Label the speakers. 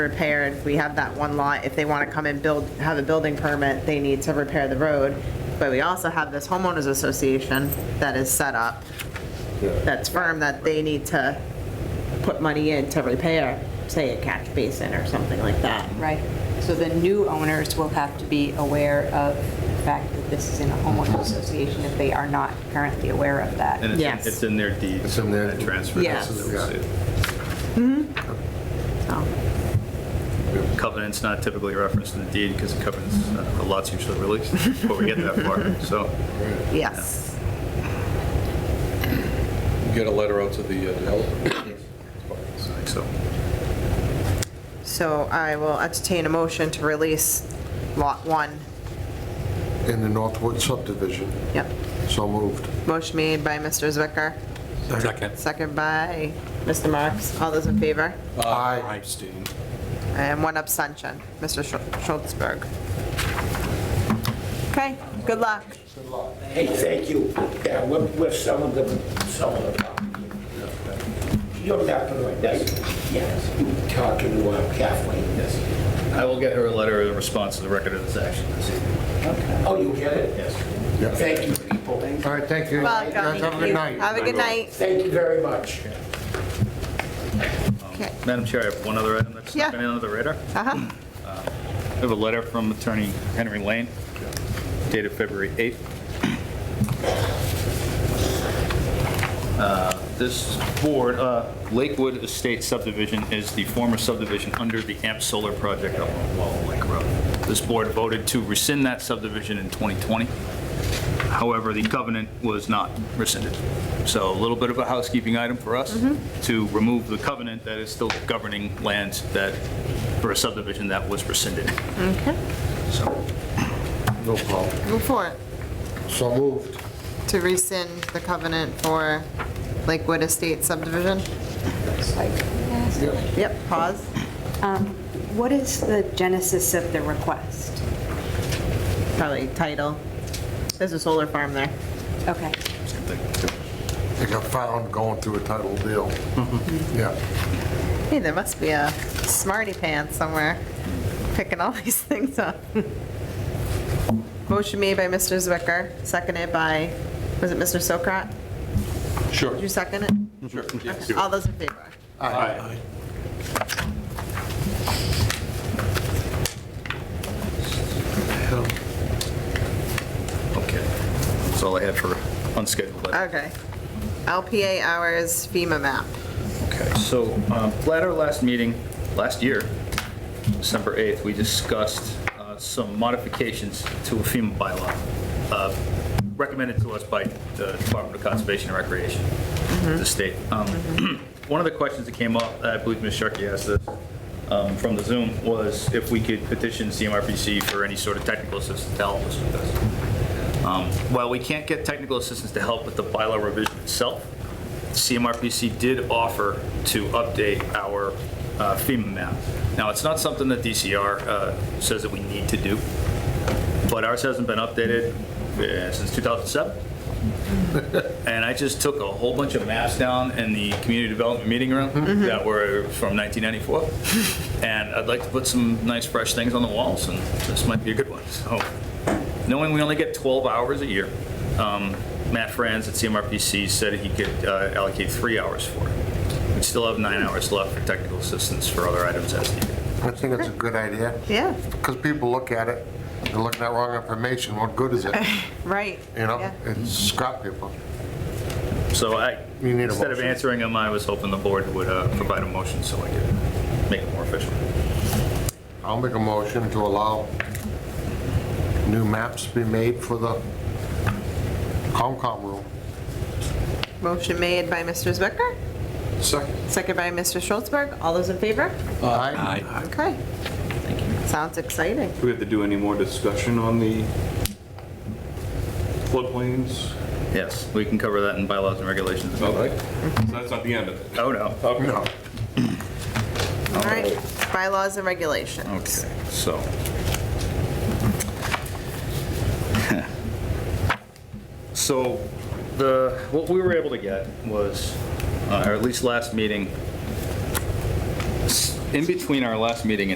Speaker 1: repaired, we have that one lot, if they want to come and build, have a building permit, they need to repair the road. But we also have this homeowners association that is set up, that's firm, that they need to put money in to repair, say, a catch basin or something like that.
Speaker 2: Right. So the new owners will have to be aware of the fact that this is in a homeowners association if they are not currently aware of that.
Speaker 3: And
Speaker 1: Yes.
Speaker 3: it's, it's in their deed.
Speaker 4: It's in their-
Speaker 3: that Transfer.
Speaker 1: Yes. So,
Speaker 3: Covenant's not typically referenced in the deed because the covenants, uh, the lot's usually released before we get to that part, so.
Speaker 1: yes.
Speaker 5: Get a letter out to the uh, developer.
Speaker 3: So,
Speaker 1: So I will entertain a motion to release Lot 1.
Speaker 4: in the Northwood subdivision.
Speaker 1: Yep.
Speaker 4: So moved.
Speaker 1: Motion made by Mr. Zwicker,
Speaker 5: Second.
Speaker 1: second by Mr. Marks. All those in favor?
Speaker 4: Aye.
Speaker 5: Epstein.
Speaker 1: And one abstention, Mr. Schul- Schultzberg. Okay, good luck.
Speaker 6: Hey, thank you. Yeah, we're, we're selling the, selling the property. You're mapping right now. Yes, you were talking to uh, Kathleen. Yes.
Speaker 3: I will get her a letter in response to the record of this action this evening.
Speaker 6: Oh, you get it?
Speaker 4: Yep.
Speaker 6: Yes. Thank you, people.
Speaker 4: All right, thank you.
Speaker 1: Welcome.
Speaker 4: Guys, Have a good night.
Speaker 1: Have a good night.
Speaker 6: Thank you very much.
Speaker 1: Okay,
Speaker 3: Madam Chair, I have one other item that's
Speaker 1: Yeah.
Speaker 3: been under the radar. Uh,
Speaker 1: uh-huh,
Speaker 3: I have a letter from Attorney Henry Lane dated February 8th. Uh, This board, uh, Lakewood Estate subdivision is the former subdivision under the AMP Solar Project up on Wall Lake Road. This board voted to rescind that subdivision in 2020. However, the covenant was not rescinded. So a little bit of a housekeeping item for us to remove the covenant that is still governing lands that, for a subdivision that was rescinded.
Speaker 1: okay,
Speaker 3: So,
Speaker 4: No problem.
Speaker 1: move forward.
Speaker 4: So moved.
Speaker 1: To rescind the covenant for Lakewood Estate subdivision? Yep, pause.
Speaker 2: What is the genesis of the request?
Speaker 1: Probably title. There's a solar farm there.
Speaker 2: Okay.
Speaker 4: They got found going through a title deal. Yeah.
Speaker 1: Hey, there must be a smarty pants somewhere picking all these things up. Motion made by Mr. Zwicker, seconded by, was it Mr. Sokrat?
Speaker 5: Sure.
Speaker 1: Did you second it?
Speaker 5: Sure.
Speaker 1: All those in favor?
Speaker 5: Aye.
Speaker 3: okay. That's all I had for unscheduled items.
Speaker 1: Okay. LPA hours FEMA map.
Speaker 3: Okay, so um, at our last meeting, last year, December 8th, we discussed uh, some modifications to a FEMA bylaw uh, recommended to us by the Department of Conservation and Recreation, the state. Um, One of the questions that came up, I believe Ms. Sharkey asked this um, from the Zoom, was if we could petition CMRPC for any sort of technical assistance to help us with this. Um, While we can't get technical assistance to help with the bylaw revision itself, CMRPC did offer to update our uh, FEMA map. Now, it's not something that DCR uh, says that we need to do, but ours hasn't been updated uh, since 2007. And I just took a whole bunch of maps down in the community development meeting room that were from 1994. And I'd like to put some nice fresh things on the walls, and this might be a good one. So, knowing we only get 12 hours a year, um, Matt Franz at CMRPC said he could uh, allocate three hours for it. We still have nine hours left for technical assistance for other items as needed.
Speaker 4: I think it's a good idea.
Speaker 1: Yeah,
Speaker 4: Because people look at it, they're looking at wrong information. What good is it?
Speaker 1: right.
Speaker 4: You know,
Speaker 1: Yeah.
Speaker 4: it's scrap paper.
Speaker 3: So I,
Speaker 4: You need a
Speaker 3: instead of
Speaker 4: motion.
Speaker 3: answering him, I was hoping the board would uh, provide a motion so I could make it more official.
Speaker 4: I'll make a motion to allow new maps be made for the Comcom room.
Speaker 1: Motion made by Mr. Zwicker,
Speaker 5: Second.
Speaker 1: seconded by Mr. Schultzberg. All those in favor?
Speaker 4: Aye.
Speaker 1: Okay. Thank you. Sounds exciting.
Speaker 7: Do we have to do any more discussion on the floodplains?
Speaker 3: Yes, we can cover that in bylaws and regulations.
Speaker 7: Okay. So that's not the end of it?
Speaker 3: Oh, no.
Speaker 4: No.
Speaker 1: All right, bylaws and regulations.
Speaker 3: Okay, so. So the, what we were able to get was, uh, or at least last meeting, s- in between our last meeting